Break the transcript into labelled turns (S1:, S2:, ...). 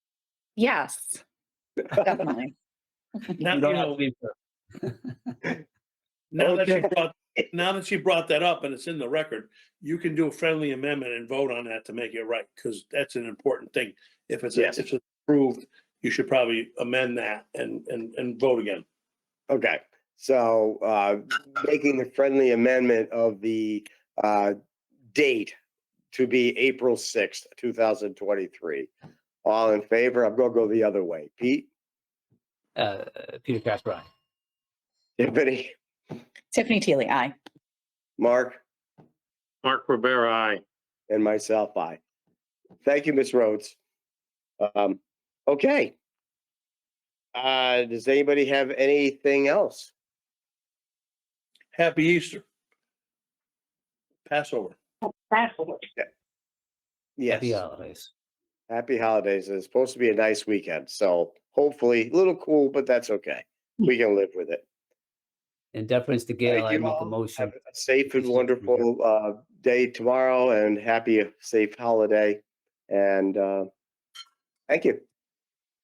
S1: Yes, definitely.
S2: Now, you
S3: You don't have
S2: know, now that she brought, now that she brought that up and it's in the record, you can do a friendly amendment and vote on that to make it right, because that's an important thing. If it's,
S3: Yes.
S2: if it's approved, you should probably amend that and, and, and vote again.
S4: Okay, so uh, making the friendly amendment of the uh, date to be April sixth, two thousand twenty-three. All in favor? I'm gonna go the other way. Pete,
S3: Uh, Peter Casper, aye.
S4: Tiffany,
S1: Tiffany Teely, aye.
S4: Mark,
S5: Mark Rivera, aye.
S4: and myself, I. Thank you, Ms. Rhodes. Um, okay. Uh, does anybody have anything else?
S2: Happy Easter. Passover.
S4: Yes.
S3: Happy holidays.
S4: Happy holidays. It's supposed to be a nice weekend, so hopefully a little cool, but that's okay. We can live with it.
S3: In deference to Gail,
S4: Thank
S3: Hmm. I
S4: you
S3: make a
S4: all.
S3: motion.
S4: Have a safe and wonderful uh, day tomorrow, and happy safe holiday. And uh, thank you.